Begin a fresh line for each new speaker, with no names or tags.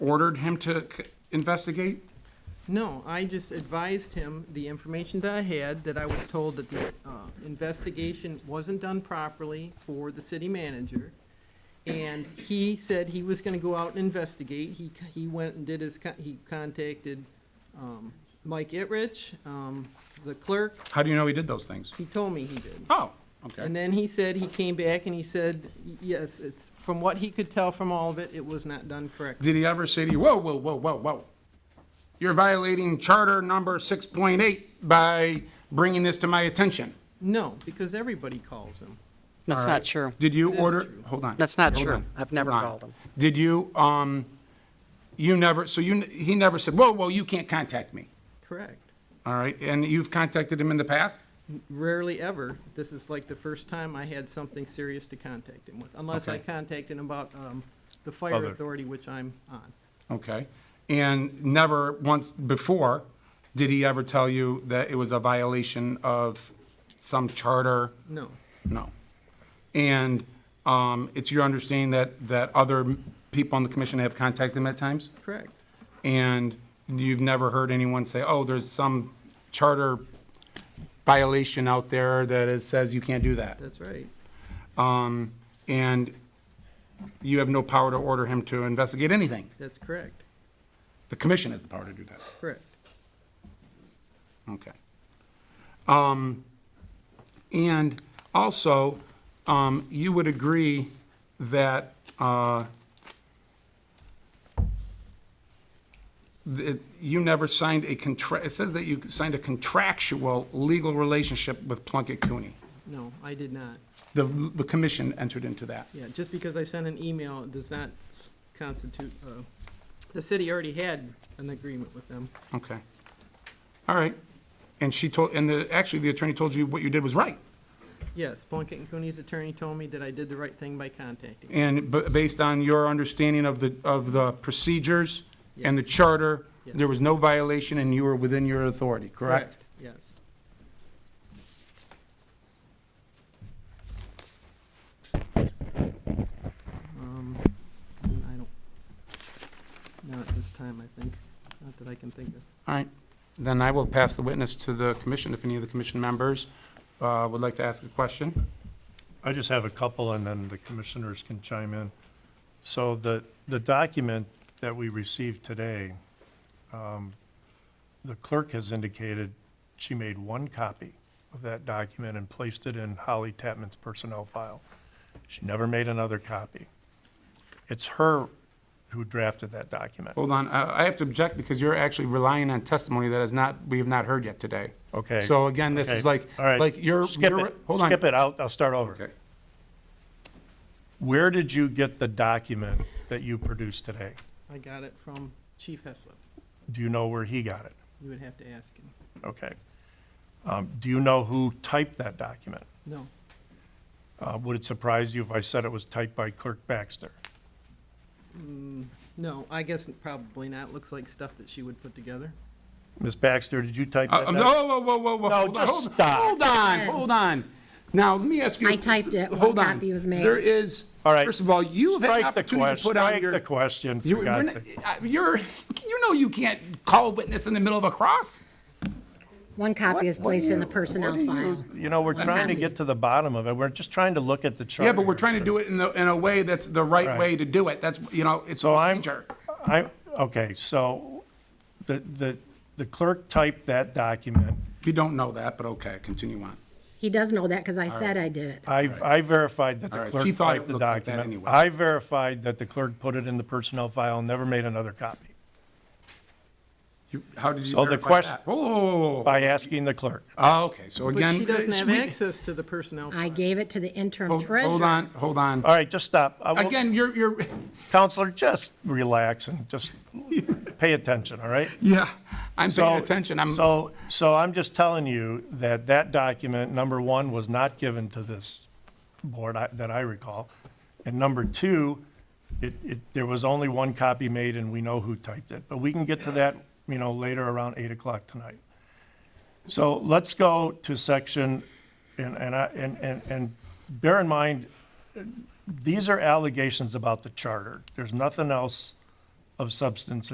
ordered him to c- investigate?
No, I just advised him the information that I had, that I was told that the uh, investigation wasn't done properly for the city manager. And he said he was gonna go out and investigate. He, c- he went and did his, co- he contacted um, Mike Itrich, um, the clerk.
How do you know he did those things?
He told me he did.
Oh,
And
okay.
then he said, he came back and he said, y- yes, it's, from what he could tell from all of it, it was not done correctly.
Did he ever say to you, whoa, whoa, whoa, whoa, whoa? You're violating charter number six point eight by bringing this to my attention?
No, because everybody calls him.
That's
All
not
right.
true.
Did you
That's
order,
true.
hold on.
That's not
Hold
true.
on.
I've never
Hold on.
called him.
Did you, um, you never, so you, n- he never said, whoa, whoa, you can't contact me,
Correct.
all right? And you've contacted him in the past?
Rarely ever. This is like the first time I had something serious to contact him with, unless I
Okay.
contacted him about um, the fire
Other-
authority, which I'm on.
Okay. And never once before did he ever tell you that it was a violation of some charter?
No,
No. And um, it's your understanding that, that other people on the commission have contacted him at times?
correct.
And you've never heard anyone say, oh, there's some charter violation out there that is- says you can't do that?
That's right.
Um, And you have no power to order him to investigate anything?
That's correct.
The commission has the power to do that.
Correct.
Okay. Um, And also, um, you would agree that uh, that you never signed a contract, it says that you signed a contractual legal relationship with Plunkett Cooney.
No, I did not.
The, the commission entered into that.
Yeah, just because I sent an email does not s- constitute, uh, the city already had an agreement with them.
Okay. All right. And she told, and the, actually, the attorney told you what you did was right.
Yes, Plunkett and Cooney's attorney told me that I did the right thing by contacting. him.
And b- based on your understanding of the, of the procedures and the
Yes.
charter,
Yes.
there was no violation and you were within your authority, correct?
Yes. Um, I don't, not at this time, I think, not that I can think of.
All right, then I will pass the witness to the commission, if any of the commission members uh, would like to ask a question.
I just have a couple, and then the commissioners can chime in. So the, the document that we received today, um, the clerk has indicated she made one copy of that document and placed it in Holly Tapman's personnel file. She never made another copy. It's her who drafted that document.
Hold on, Uh, I I have to object because you're actually relying on testimony that is not, we have not heard yet today.
Okay.
So again, this
Okay.
is like,
All right.
like you're,
Skip
you're-
it.
hold on.
Skip it. I'll, I'll start over.
Okay.
Where did you get the document that you produced today?
I got it from Chief Heslop.
Do you know where he got it?
You would have to ask him.
Okay. Um, Do you know who typed that document?
No,
Uh, Would it surprise you if I said it was typed by Clerk Baxter?
no, I guess probably not. Looks like stuff that she would put together.
Ms. Baxter, did you type
Uh,
that?
um,
doc-
whoa, whoa, whoa, whoa, whoa.
No,
hold on,
just
hold-
stop.
Hold on, hold on. Now, let me ask you.
I typed it. One
Hold on.
copy was made.
There is,
All right.
first of all, you have had an
Strike the
opportunity to
question,
put on
strike
your.
the question,
You-
for
we're
God's
not-
sake.
uh, You're, you know you can't call a witness in the middle of a cross?
Oh,
One copy is placed in the personnel file.
You know, we're trying to get to the bottom of it. We're just trying to look at the chart.
Yeah, but we're trying to do it in the, in a way that's the right
Right.
way to do it. That's, you know, it's
So I'm,
procedure.
I, okay, so the, the, the clerk typed that document.
You don't know that, but okay, continue on.
He does know that because I said I did it.
I, I verified that
All
the
right,
clerk
she thought it
typed the
looked like that
document.
anyway.
I verified that the clerk put it in the personnel file and never made another copy
You, how did you
So the
verify
quest-
that? Whoa, whoa, whoa, whoa, whoa.
by asking the clerk.
Oh, okay, so
But
again.
she doesn't
uh,
have
we-
access to the personnel.
I gave it to the interim
Hold
treasurer.
hold on, hold on.
All right, just stop. I will-
Again, you're, you're,
Counselor, just relax and just pay attention, all right?
yeah, I'm
So-
paying attention. I'm.
So, so I'm just telling you that that document, number one, was not given to this board I- that I recall. And number two, it, it, there was only one copy made and we know who typed it. But we can get to that, you know, later around eight o'clock tonight. So let's go to section, and, and I, and, and, and bear in mind, these are allegations about the charter. There's nothing else of substance